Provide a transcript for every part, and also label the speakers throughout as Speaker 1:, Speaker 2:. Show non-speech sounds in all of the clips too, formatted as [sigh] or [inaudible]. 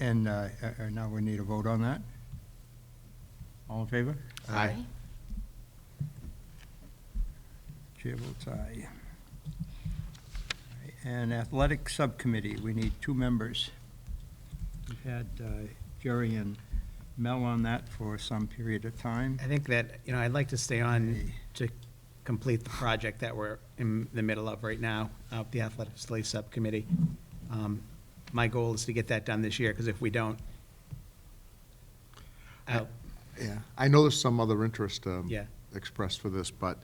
Speaker 1: And uh, uh, uh, now we need a vote on that. All in favor?
Speaker 2: Aye.
Speaker 1: Chair votes aye. And Athletic Subcommittee, we need two members. We've had uh, Jerry and Mel on that for some period of time.
Speaker 2: I think that, you know, I'd like to stay on
Speaker 1: Hey.
Speaker 2: to complete the project that we're in the middle of right now, uh, the Athletic Facility Subcommittee. Um, My goal is to get that done this year, because if we don't, I'll-
Speaker 3: Yeah, I know there's some other interest um,
Speaker 2: Yeah.
Speaker 3: expressed for this, but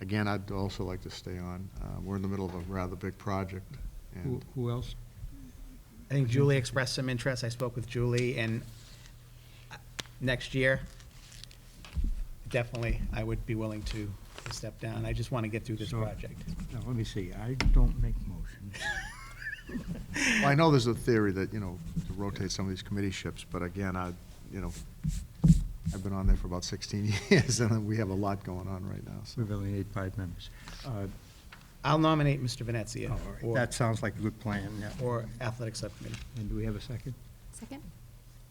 Speaker 3: again, I'd also like to stay on. Uh, We're in the middle of a rather big project,
Speaker 1: Who
Speaker 3: and
Speaker 1: who else?
Speaker 2: I think Julie expressed some interest, I spoke with Julie, and uh, next year, definitely, I would be willing to step down. I just want to get through this
Speaker 1: So-
Speaker 2: project.
Speaker 1: Now, let me see, I don't make motions.
Speaker 3: well, I know there's a theory that, you know, to rotate some of these committee ships, but again, I, you know, I've been on there for about 16 [laughs] years, and we have a lot going on right now, so.
Speaker 1: We really need five members. Uh,
Speaker 2: I'll nominate Mr. Venezia
Speaker 1: all right,
Speaker 2: or-
Speaker 1: That sounds like a good plan, yeah.
Speaker 2: or Athletic Subcommittee.
Speaker 1: And do we have a second?
Speaker 4: Second?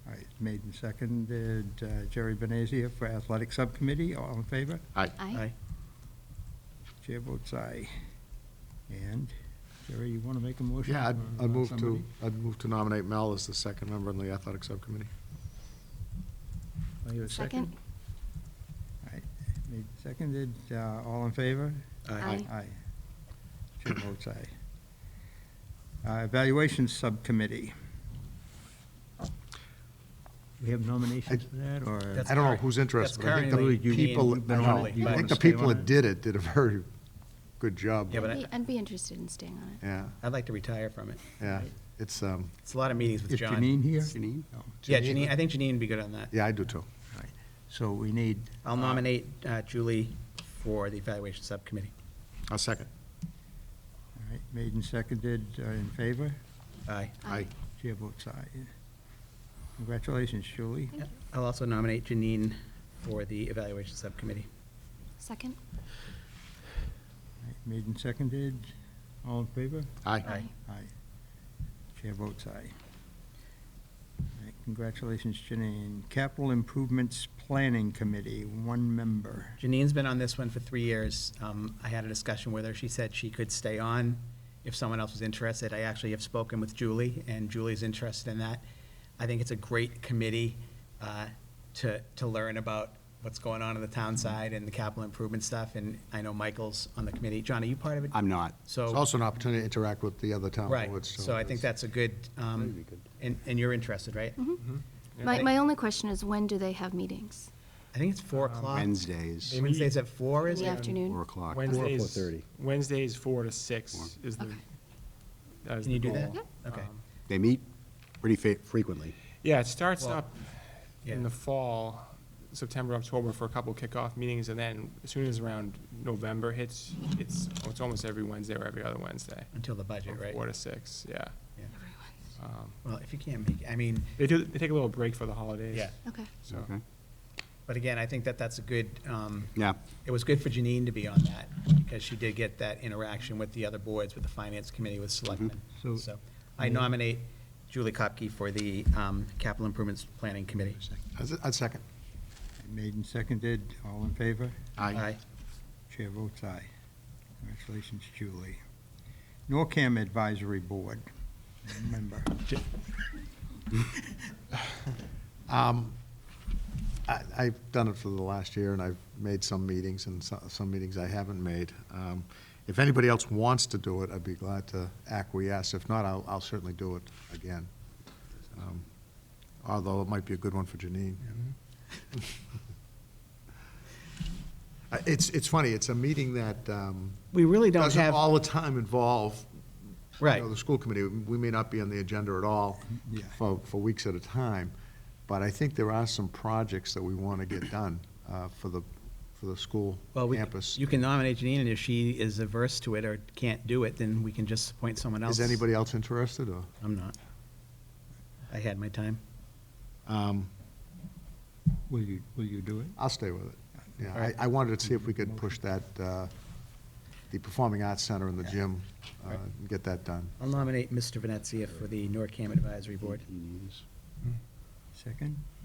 Speaker 1: All right, made and seconded, uh, Jerry Benazia for Athletic Subcommittee, all in favor?
Speaker 2: Aye.
Speaker 1: Chair votes aye. And, Jerry, you want to make a motion?
Speaker 3: Yeah, I'd
Speaker 1: or, uh,
Speaker 3: I'd move to,
Speaker 1: somebody?
Speaker 3: I'd move to nominate Mel as the second member on the athletic subcommittee.
Speaker 1: Do I hear Oh, a second? All right, made and seconded, uh, all in favor?
Speaker 4: Aye.
Speaker 1: Aye. Chair votes aye. Uh, Evaluation Subcommittee. We have nominations for that, or?
Speaker 2: That's
Speaker 3: I don't know
Speaker 2: current.
Speaker 3: who's interested,
Speaker 2: That's
Speaker 3: but I think
Speaker 2: currently
Speaker 3: the
Speaker 1: Julie, you-
Speaker 3: people,
Speaker 1: you've
Speaker 3: I
Speaker 1: been on
Speaker 3: know,
Speaker 1: it. Do you
Speaker 3: I
Speaker 1: wanna
Speaker 3: think the
Speaker 1: stay
Speaker 3: people
Speaker 1: on
Speaker 3: that
Speaker 1: it?
Speaker 3: did it did a very good job.
Speaker 2: Yeah, but I-
Speaker 4: Be- I'd be interested in staying on it.
Speaker 3: Yeah,
Speaker 2: I'd like to retire from it.
Speaker 3: yeah, it's, um,
Speaker 2: It's a lot of meetings with
Speaker 1: Is
Speaker 2: John.
Speaker 1: Janine here? Oh,
Speaker 3: Janine?
Speaker 1: No.
Speaker 2: Yeah, Janine, I think Janine would be good on that.
Speaker 3: yeah, I do too.
Speaker 1: So we need.
Speaker 2: I'll nominate uh, Julie for the evaluation subcommittee.
Speaker 3: I'll second.
Speaker 1: All right, made and seconded, uh, in favor?
Speaker 2: Aye.
Speaker 3: Aye.
Speaker 1: Chair votes aye. Congratulations, Julie.
Speaker 4: Thank you.
Speaker 2: I'll also nominate Janine for the evaluation subcommittee.
Speaker 4: Second?
Speaker 1: Made and seconded, all in favor?
Speaker 2: Aye.
Speaker 1: Aye. Chair votes aye. All right, Congratulations, Janine. Capital Improvements Planning Committee, one member.
Speaker 2: Janine's been on this one for three years. Um, I had a discussion with her. She said she could stay on if someone else was interested. I actually have spoken with Julie, and Julie's interested in that. I think it's a great committee uh, to, to learn about what's going on in the town side and the capital improvement stuff, and I know Michael's on the committee. John, are you part of it?
Speaker 5: I'm not.
Speaker 3: It's
Speaker 2: So,
Speaker 3: also an opportunity to interact with the other town
Speaker 2: right,
Speaker 3: boards.
Speaker 2: so I think
Speaker 3: it's-
Speaker 2: that's a good, um,
Speaker 5: That'd be good.
Speaker 2: and, and you're interested, right?
Speaker 4: My, my only question is, when do they have meetings?
Speaker 2: I think it's four
Speaker 5: Uh,
Speaker 2: o'clock.
Speaker 5: Wednesdays,
Speaker 2: Wednesday's at four,
Speaker 4: In
Speaker 2: is it?
Speaker 4: the afternoon?
Speaker 5: four o'clock.
Speaker 6: Wednesdays,
Speaker 5: 4:30.
Speaker 6: Wednesdays, four to six is the.
Speaker 4: Okay.
Speaker 6: that is
Speaker 2: Can you
Speaker 6: the
Speaker 2: do that?
Speaker 6: goal.
Speaker 2: Yeah. Okay.
Speaker 6: Um,
Speaker 5: They meet pretty fa- frequently.
Speaker 6: Yeah, it starts
Speaker 2: Well,
Speaker 6: up
Speaker 2: yeah.
Speaker 6: in the fall, September, October, for a couple kickoff meetings, and then as soon as around November hits, it's, it's almost every Wednesday or every other Wednesday.
Speaker 2: Until the budget,
Speaker 6: from
Speaker 2: right?
Speaker 6: Four to six, yeah.
Speaker 2: Yeah.
Speaker 4: Everyone.
Speaker 6: Um,
Speaker 2: Well, if you can't make, I mean,
Speaker 6: They do, they take a little break for the holidays.
Speaker 2: Yeah.
Speaker 4: Okay.
Speaker 6: So,
Speaker 5: Okay.
Speaker 2: but again, I think that that's a good, um,
Speaker 5: Yeah,
Speaker 2: it was good for Janine to be on that, because she did get that interaction with the other boards, with the finance committee, with selectmen.
Speaker 1: So-
Speaker 2: Mm-hmm. So I nominate Julie Kopke for the um, capital improvements planning committee.
Speaker 3: I'd- I'd second.
Speaker 1: Made and seconded, all in favor?
Speaker 2: Aye.
Speaker 1: Chair votes aye. Congratulations, Julie. NORCAM Advisory Board, one member.
Speaker 3: I- I've done it for the last year, and I've made some meetings, and so- some meetings I haven't made. Um, If anybody else wants to do it, I'd be glad to acquiesce. If not, I'll I'll certainly do it again. Um, Although it might be a good one for Janine.
Speaker 2: Mm-hmm.
Speaker 3: [laughs] Uh, It's it's funny, it's a meeting that um,
Speaker 2: We really don't
Speaker 3: doesn't
Speaker 2: have,
Speaker 3: all the time involve you
Speaker 2: right,
Speaker 3: know, the school committee, we may not be on the agenda at all
Speaker 1: Yeah.
Speaker 3: for, for weeks at a time, but I think there are some projects that we want to get done uh, for the, for the school
Speaker 2: well, we,
Speaker 3: campus.
Speaker 2: you can nominate Janine, and if she is averse to it or can't do it, then we can just appoint someone else.
Speaker 3: Is anybody else interested, or?
Speaker 2: I'm not. I had my time.
Speaker 3: um,
Speaker 1: Will you, will you do it?
Speaker 3: I'll stay with it. Yeah,
Speaker 2: All right.
Speaker 3: I, I wanted to see if we could push that, uh, the Performing Arts Center in the gym, uh,
Speaker 2: Right.
Speaker 3: get that done.
Speaker 2: I'll nominate Mr. Venezia for the NORCAM Advisory Board.
Speaker 5: He needs-
Speaker 1: Second?